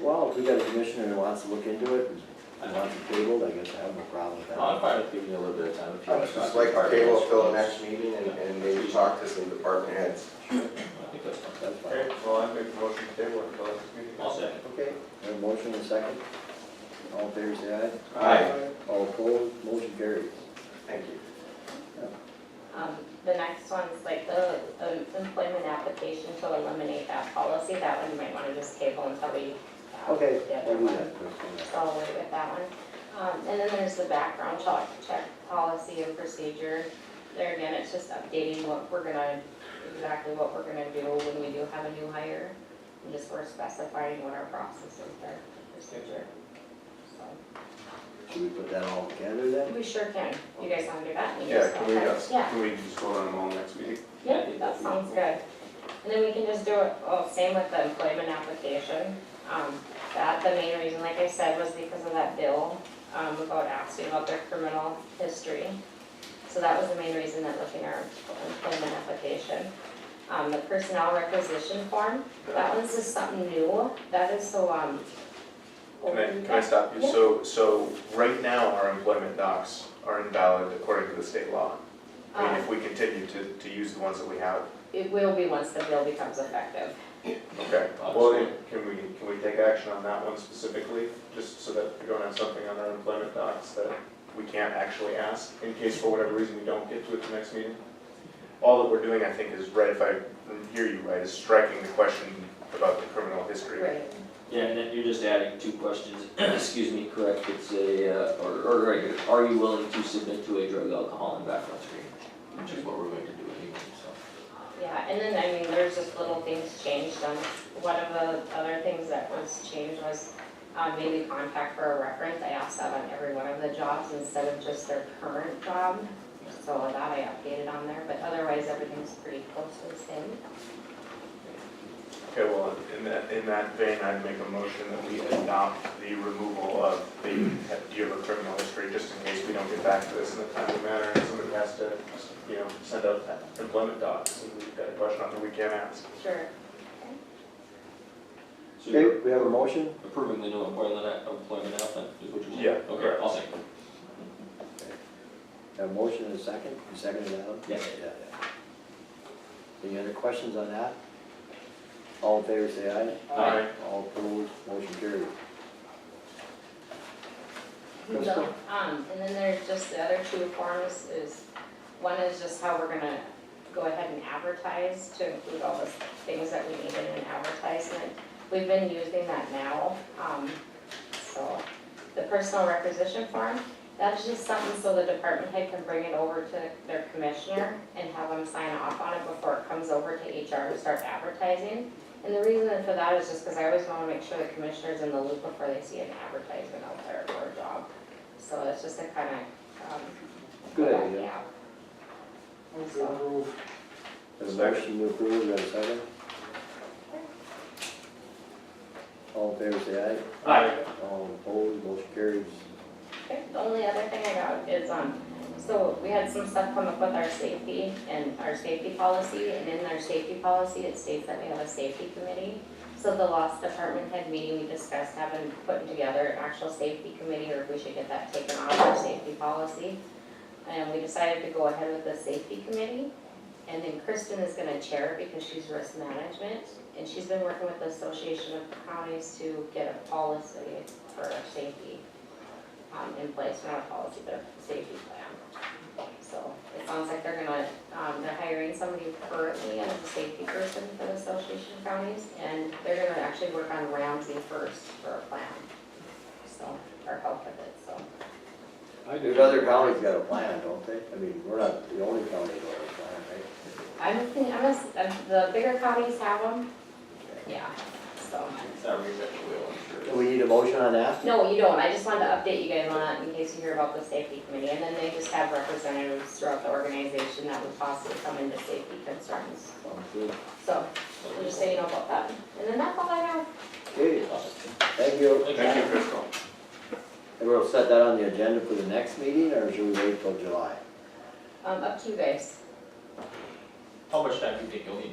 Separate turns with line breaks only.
Well, if we got a commissioner who wants to look into it and wants it tabled, I guess I have no problem with
I'm
that.
fine with giving you a little bit of time if you
I
want
would
to.
just
talk
like
to
to
the
table
department
till the
heads.
next meeting and, and maybe talk to some department heads.
I think that's fine.
That's fine.
Okay, well, I make a motion to table until next meeting.
I'll second.
Okay, we have a motion and a second. All in favor, say aye. All opposed, motion carries.
Thank you.
Um, the next one's like the, um, employment application to eliminate that policy, that one you might wanna just table until we. uh,
Okay,
the other
we'll do
one.
that.
So I'll wait with that one. Um, and then there's the background check, check policy and procedure. There again, it's just updating what we're gonna, exactly what we're gonna do when we do have a new hire. And just we're specifying what our process is there, procedure. So,
Should we put that all together then?
we sure can, you guys wanna do that?
Yeah, can we
uh,
just-
Yeah,
Can we just go on them all next meeting?
yeah, that sounds good. And then we can just do it, oh, same with the employment application. Um, that, the main reason, like I said, was because of that bill, um, about asking about their criminal history. So that was the main reason that looking at our employment application. Um, the personnel requisition form, that one's just something new, that is so, um.
Can I, can I stop you?
Yeah.
So, so right now, our employment docs are invalid according to the state law. I mean,
Um,
if we continue to, to use the ones that we have,
it will be once the bill becomes effective.
okay. Well, then, can we, can we take action on that one specifically, just so that we don't have something on our employment docs that we can't actually ask, in case for whatever reason we don't get to it the next meeting? All that we're doing, I think, is, right, if I hear you right, is striking the question about the criminal history.
Yeah, and then you're just adding two questions, excuse me, correct, it's a, uh, or, or, right, are you willing to submit to a drug, alcohol, and background screen? Which is what we're going to do anyway, so.
Yeah, and then, I mean, there's just little things changed, um, one of the other things that was changed was, um, maybe contact for a reference, I asked that on every one of the jobs instead of just their current job. So that I updated on there, but otherwise, everything's pretty close to the same.
Okay, well, in that, in that vein, I'd make a motion that we adopt the removal of the, do you have a criminal history, just in case we don't get back to this in a timely manner, and somebody has to, you know, send out employment docs, and we've got a question on that we can't ask.
Sure.
So
Okay,
you're
we have a motion.
approving the new employment, app- employment app then, is what you're saying?
Yeah,
Okay,
correct.
I'll second.
Have a motion and a second. You seconded that? one?
Yeah.
Any other questions on that? All in favor, say aye.
Aye.
All opposed, motion carried.
So,
Crystal?
Um, and then there's just the other two forms is, one is just how we're gonna go ahead and advertise to include all the things that we need in an advertisement. We've been using that now, um, so the personal requisition form, that's just something so the department head can bring it over to their commissioner and have them sign off on it before it comes over to HR to start advertising. And the reason for that is just because I always wanna make sure the commissioner's in the loop before they see an advertisement out there for a job. So it's just a kind of, um.
Good idea.
yeah. So,
Have a motion to approve, we have a second. All in favor, say
Aye.
aye. All opposed, motion carries.
okay, the only other thing I got is, um, so we had some stuff come up with our safety and our safety policy, and in our safety policy, it states that we have a safety committee. So the loss department head meeting, we discussed having, putting together an actual safety committee, or if we should get that taken off our safety policy. And we decided to go ahead with the safety committee. And then Kristen is gonna chair because she's risk management. And she's been working with the Association of Counties to get a policy for our safety um, in place, not a policy, but a safety plan. So it sounds like they're gonna, um, they're hiring somebody currently as a safety person for the Association of Counties. And they're gonna actually work on Ramsey first for a plan, so, or help with it, so.
There's other counties got a plan, don't they? I mean, we're not the only county that has a plan, right?
I'm thinking, I'm, just- uh, the bigger counties have them, yeah, so.
It's not reinventing the wheel, I'm
Do we need a motion on that?
No, you don't, I just wanted to update you guys on that in case you hear about the safety committee, and then they just have representatives throughout the organization that would possibly come into safety concerns.
Sounds good.
So, we'll just say you know about that, and then that's all I have.
Okay, thank you.
Thank you, Crystal.
And we'll set that on the agenda for the next meeting, or should we wait till July?
Um, up to you guys.
How much time do you think you'll need